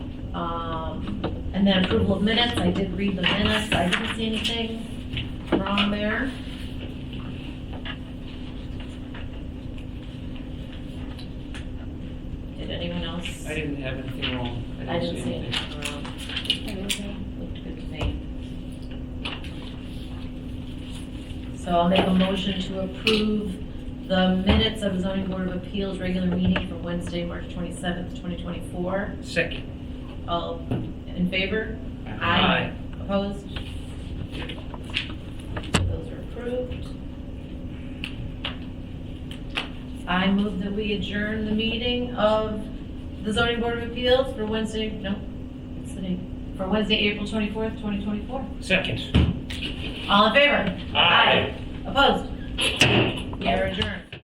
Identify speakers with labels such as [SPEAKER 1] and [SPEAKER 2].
[SPEAKER 1] Um, And then approval of minutes, I did read the minutes, I didn't see anything wrong there. Did anyone else?
[SPEAKER 2] I didn't have anything wrong.
[SPEAKER 1] I didn't see
[SPEAKER 2] anything.
[SPEAKER 1] anything wrong. Looked good to me. So I'll make a motion to approve the minutes of zoning board of appeals regular meeting for Wednesday, March twenty-seventh, twenty twenty-four.
[SPEAKER 2] Second.
[SPEAKER 1] All in favor? Opposed? Those are approved. I move that we adjourn the meeting of the zoning board of appeals for Wednesday, no, it's the name, for Wednesday, April twenty-fourth, twenty twenty-four.
[SPEAKER 2] Second.
[SPEAKER 1] All in favor?
[SPEAKER 2] Aye.
[SPEAKER 1] Opposed? We are adjourned.